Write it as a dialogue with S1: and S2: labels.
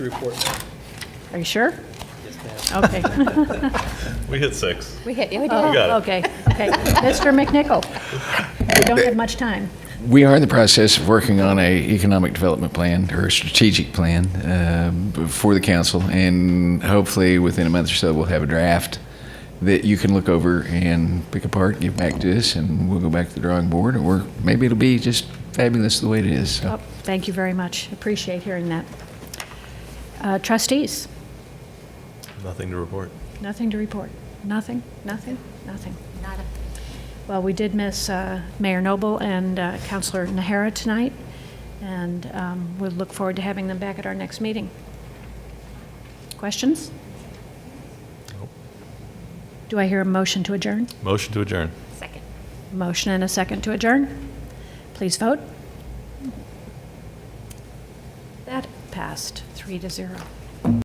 S1: Report.
S2: Are you sure? Okay.
S3: We hit six.
S4: We hit, yeah, we did.
S2: Oh,
S3: got it.
S2: Okay, okay. Mr. McNichol, we don't have much time.
S5: We are in the process of working on a economic development plan or a strategic plan uh, for the council, and hopefully within a month or so we'll have a draft that you can look over and pick apart, give back to us, and we'll go back to the drawing board, or maybe it'll be just fabulous the way it is. So.
S2: Oh, Thank you very much. Appreciate hearing that. Uh, Trustees,
S3: Nothing to report.
S2: nothing to report. Nothing, nothing, nothing. Well, we did miss uh, Mayor Noble and uh, Counselor Nahara tonight, and um, we look forward to having them back at our next meeting. Questions? Do I hear a motion to adjourn?
S3: Motion to adjourn.
S4: Second.
S2: Motion and a second to adjourn. Please vote. That passed, three to zero.